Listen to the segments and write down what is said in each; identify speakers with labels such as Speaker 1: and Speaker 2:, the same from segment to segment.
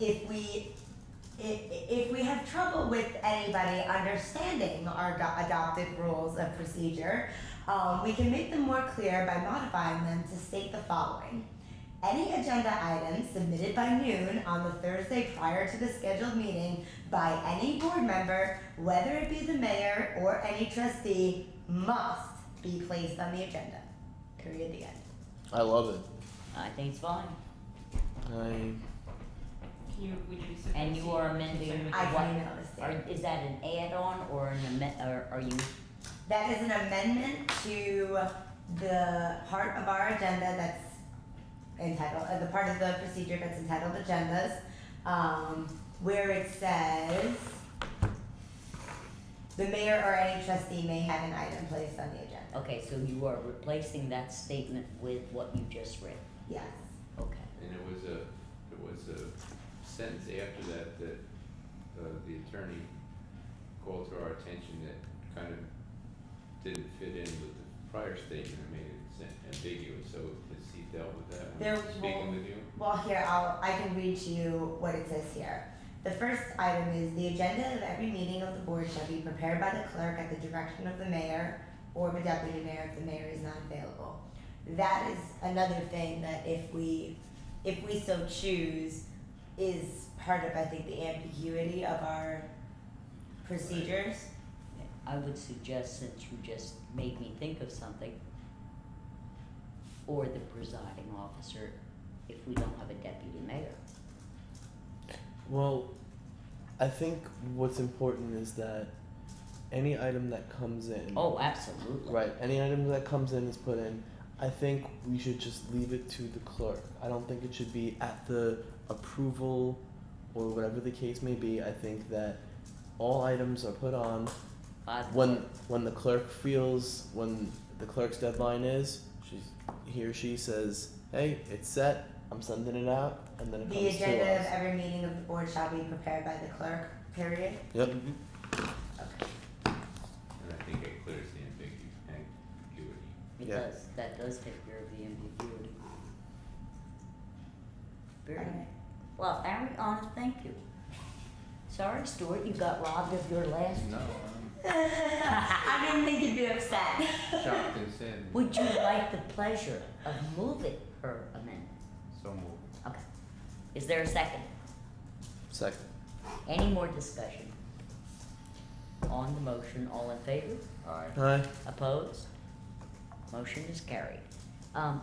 Speaker 1: if we, if, if we have trouble with anybody understanding our ado- adopted rules of procedure, um, we can make them more clear by modifying them to state the following. Any agenda item submitted by noon on the Thursday prior to the scheduled meeting by any board member, whether it be the mayor or any trustee, must be placed on the agenda. Period, the end.
Speaker 2: I love it.
Speaker 3: I think it's fine.
Speaker 2: I
Speaker 4: Can you, would you be so
Speaker 3: And you are amending
Speaker 1: I
Speaker 3: what?
Speaker 1: can email this
Speaker 3: Or
Speaker 1: in.
Speaker 3: is that an add-on or an amend, or are you,
Speaker 1: That is an amendment to the part of our agenda that's entitled, uh, the part of the procedure that's entitled agendas, um, where it says, the mayor or any trustee may have an item placed on the agenda.
Speaker 3: okay, so you are replacing that statement with what you just read,
Speaker 1: Yes.
Speaker 3: okay.
Speaker 5: And it was a, it was a sentence after that that, uh, the attorney called to our attention that kind of didn't fit in with the prior statement and made it sen- ambiguous, so has he dealt with that
Speaker 1: There
Speaker 5: when
Speaker 1: will-
Speaker 5: speaking with you?
Speaker 1: Well, here, I'll, I can read to you what it says here. The first item is the agenda of every meeting of the board shall be prepared by the clerk at the direction of the mayor or the deputy mayor if the mayor is not available. That is another thing that if we, if we so choose, is part of, I think, the ambiguity of our procedures.
Speaker 3: I would suggest, since you just made me think of something, or the presiding officer, if we don't have a deputy mayor.
Speaker 2: well, I think what's important is that any item that comes in,
Speaker 3: Oh, absolutely.
Speaker 2: Mm. right? Any item that comes in is put in. I think we should just leave it to the clerk. I don't think it should be at the approval or whatever the case may be. I think that all items are put on
Speaker 3: By the-
Speaker 2: when when the clerk feels when the clerk's deadline is, she's he or she says, "Hey, it's set. I'm sending it out," and then it
Speaker 1: The
Speaker 2: comes
Speaker 1: agenda
Speaker 2: to
Speaker 1: of
Speaker 2: us.
Speaker 1: every meeting of the board shall be prepared by the clerk, period.
Speaker 2: Yep.
Speaker 3: Mhm.
Speaker 1: Okay.
Speaker 5: And I think it clears the ambigu- ambiguity.
Speaker 3: It
Speaker 2: Yeah.
Speaker 3: does, that does take care of the ambiguity. Very,
Speaker 1: Alright.
Speaker 3: well, Ariana, thank you. Sorry, Stuart, you got robbed of your last.
Speaker 5: No, I'm
Speaker 1: I didn't think you'd be upset.
Speaker 5: shocked and saddened.
Speaker 3: Would you like the pleasure of moving her amendment?
Speaker 5: So moved.
Speaker 3: Okay. Is there a second?
Speaker 2: Second.
Speaker 3: Any more discussion? On the motion, all in favor?
Speaker 5: Aye.
Speaker 2: Hi.
Speaker 3: Opposed? Motion is carried. Um,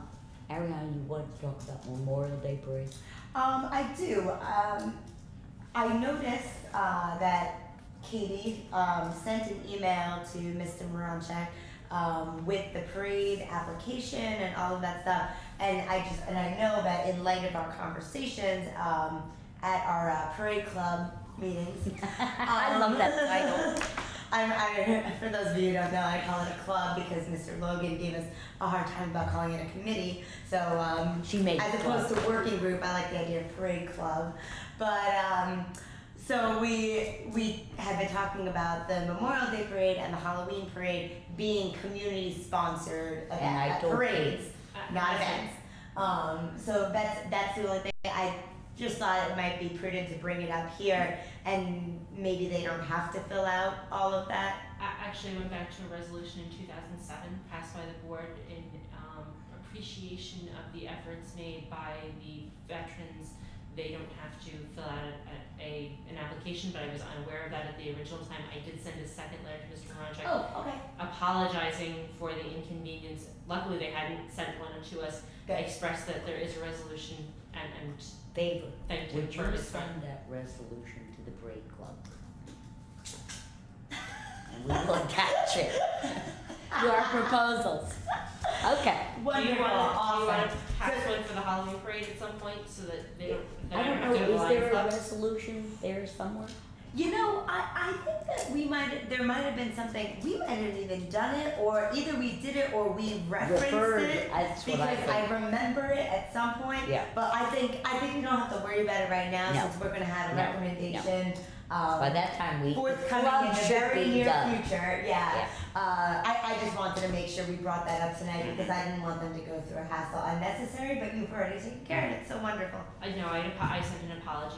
Speaker 3: Ariana, you want to talk about Memorial Day parade?
Speaker 1: Um, I do. Um, I noticed uh, that Katie um, sent an email to Mr. Moranchek um, with the parade application and all of that stuff. And I just and I know that in light of our conversations um, at our uh, parade club meetings, um,
Speaker 3: I love that title.
Speaker 1: I'm, I, for those of you who don't know, I call it a club because Mr. Logan gave us a hard time about calling it a committee. So um,
Speaker 3: She made
Speaker 1: as
Speaker 3: it
Speaker 1: opposed to working group, I like the idea of parade club. But um, so we we have been talking about the Memorial Day parade and the Halloween parade being community sponsored event,
Speaker 3: And I
Speaker 1: uh,
Speaker 3: told
Speaker 1: parades,
Speaker 4: Uh,
Speaker 1: not
Speaker 4: listen.
Speaker 1: events. Um, so that's that's the only thing I just thought it might be prudent to bring it up here, and maybe they don't have to fill out all of that.
Speaker 4: I actually went back to a resolution in two thousand seven passed by the board in um appreciation of the efforts made by the veterans. They don't have to fill out a a an application, but I was unaware of that at the original time. I did send a second letter to Mr. Maranchak
Speaker 1: Oh, okay.
Speaker 4: apologizing for the inconvenience. Luckily, they hadn't sent one to us. They
Speaker 1: Good.
Speaker 4: expressed that there is a resolution and, and
Speaker 3: Favor,
Speaker 4: thank you
Speaker 3: would
Speaker 4: for
Speaker 3: you
Speaker 4: his friend.
Speaker 3: send that resolution to the parade club? And we will attach it to our proposals. Okay.
Speaker 4: Do you
Speaker 1: Wonderful.
Speaker 4: wanna, do you
Speaker 1: Awesome.
Speaker 4: wanna pass one for the Halloween parade at some point so that they don't, they
Speaker 3: I
Speaker 4: don't
Speaker 3: don't
Speaker 4: have to
Speaker 3: know,
Speaker 4: go
Speaker 3: is
Speaker 4: line
Speaker 3: there a
Speaker 4: up?
Speaker 3: resolution there somewhere?
Speaker 1: You know, I, I think that we might there might have been something we might have even done it or either we did it or we referenced
Speaker 3: Referred,
Speaker 1: it
Speaker 3: that's
Speaker 1: because
Speaker 3: what I think.
Speaker 1: remember it at some point.
Speaker 3: Yeah.
Speaker 1: But I think I think we don't have to worry about it right now
Speaker 3: No.
Speaker 1: since we're gonna have a
Speaker 3: No.
Speaker 1: recommendation. Um,
Speaker 3: By that time, we, the
Speaker 1: forthcoming in
Speaker 3: club
Speaker 1: the
Speaker 3: should
Speaker 1: very
Speaker 3: be
Speaker 1: near
Speaker 3: done.
Speaker 1: future. Yeah. Uh, I, I just wanted to make sure we brought that up tonight
Speaker 3: Mm-hmm.
Speaker 1: because I didn't want them to go through a hassle unnecessary. But you've already taken care of it. So wonderful.
Speaker 4: I know, I, apo- I sent an apology